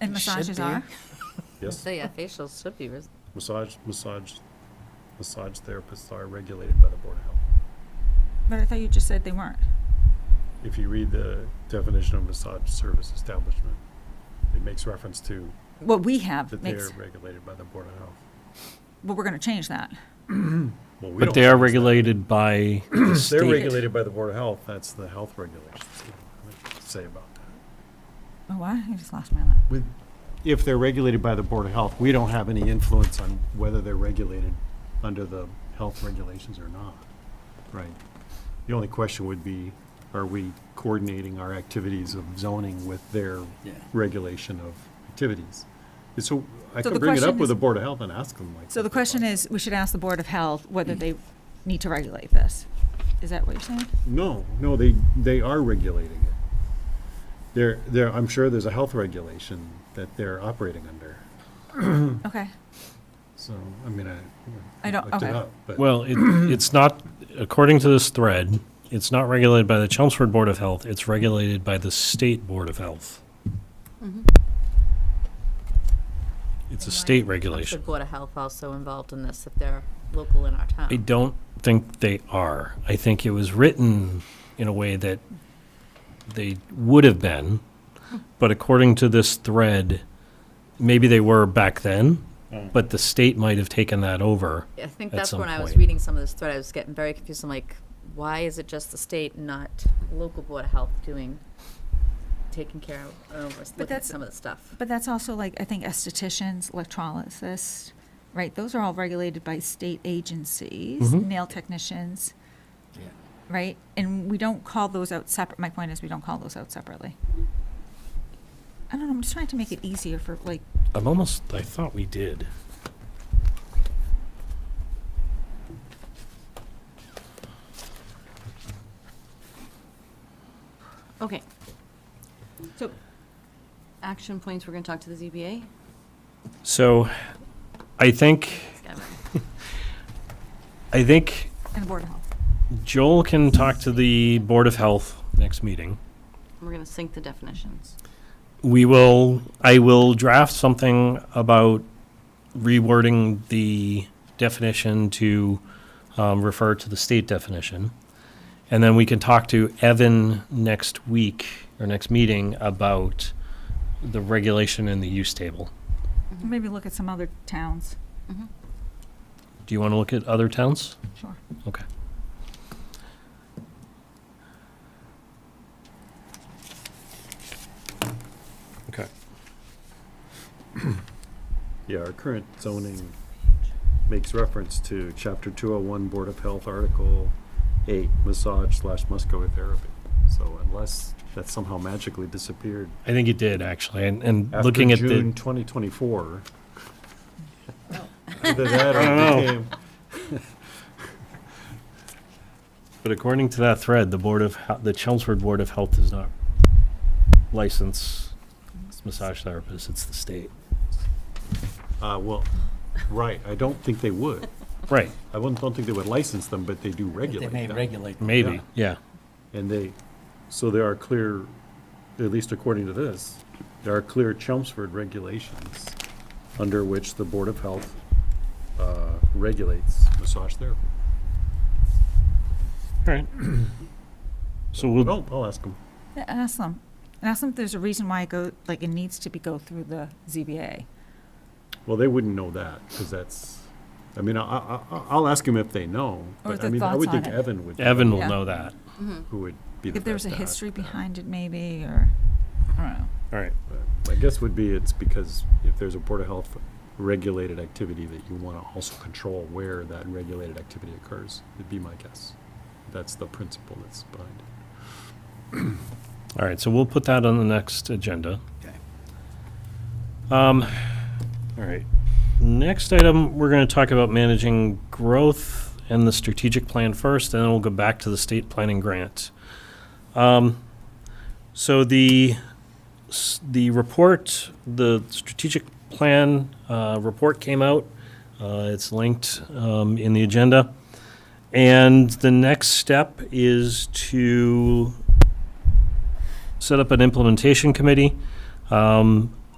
And massages are? Yes, So yeah, facials should be, res- massage, massage, massage therapists are regulated by the Board of Health. But I thought you just said they weren't. If you read the definition of massage service establishment, it makes reference to What we have that they makes, are regulated by the Board of Health. but we're gonna change that. Well, we But don't they change are that. regulated by the state. They're regulated by the Board of Health, that's the health regulations, you know, what to say about that. Oh, what? I just lost my line. With, if they're regulated by the Board of Health, we don't have any influence on whether they're regulated under the health regulations or not. Right. The only question would be, are we coordinating our activities of zoning with their regulation of activities? And So I So could the bring it up question with the is- Board of Health and ask them like. So the what they question thought. is, we should ask the Board of Health whether they need to regulate this. Is that what you're saying? No, no, they, they are regulating it. There, there, I'm sure there's a health regulation that they're operating under. Okay. So, I mean, I. I don't- looked it okay. up, But Well, it, it's not, according to this thread, it's not regulated by the Chelmsford Board of Health. It's regulated by the State Board of Health. It's a state should regulation. Board of Health also involved in this if they're local in our I town? don't think they are. I think it was written in a way that they would have been, but according to this thread, maybe they were back then, Oh. but the state might have taken that over. I think At that's some when I was point. reading some of this thread, I was getting very confused, I'm like, why is it just the state and not local Board of Health doing, taking care of, uh, looking at that's- some of the stuff? But that's also like, I think estheticians, electrolysis, right? Those are all regulated by state agencies, Mhm. nail technicians, right? And we don't call those out separate, my point is, we don't call those out separately. I don't know, I'm just trying to make it easier for like, I'm almost, I thought we did. Okay, so, action points, we're going to talk to the ZBA. So I think, I think and the Board of Health. Joel can talk to the Board of Health next meeting. We're going to sync the definitions. We will, I will draft something about rewording the definition to um, refer to the state definition. And then we can talk to Evan next week or next meeting about the regulation in the use table. Maybe look at some other towns, Do you want to look at other towns? sure. Okay. Okay. yeah, our current zoning makes reference to chapter two oh one Board of Health, article eight, massage slash muscular therapy. So unless that somehow magically disappeared I think it did actually, and, and after looking at June the, twenty twenty-four. Either that or I it don't know. became, but according to that thread, the Board of, Hel- the Chelmsford Board of Health does not license massage therapists, it's the state. uh, well, right, I don't think they would. Right, I wouldn't, don't think they would license them, but they do regulate They them. may regulate. them. maybe, yeah. And they, so there are clear, at least according to this, there are clear Chelmsford regulations under which the Board of Health uh, regulates massage therapy. Right. So we'll, Oh, I'll ask them. Yeah, Ask them, and ask them if there's a reason why it go, like, it needs to be go through the ZBA. Well, they wouldn't know that, because that's, I mean, I, I, I- I'll ask them if they know. Or But I their mean, I thoughts would on think it. Evan would. Evan will Yeah. know that. Who would be the If there's a best at history that. behind it maybe, or, I don't know. All right. But My guess would be it's because if there's a Board of Health regulated activity that you want to also control where that regulated activity occurs, it'd be my guess. That's the principle that's behind it. All right, so we'll put that on the next agenda. Okay. Um, all right. Next item, we're going to talk about managing growth and the strategic plan first, and then we'll go back to the state planning grant. Um, so the s- the report, the strategic plan uh, report came out. Uh, it's linked um, in the agenda, and the next step is to set up an implementation committee. Um,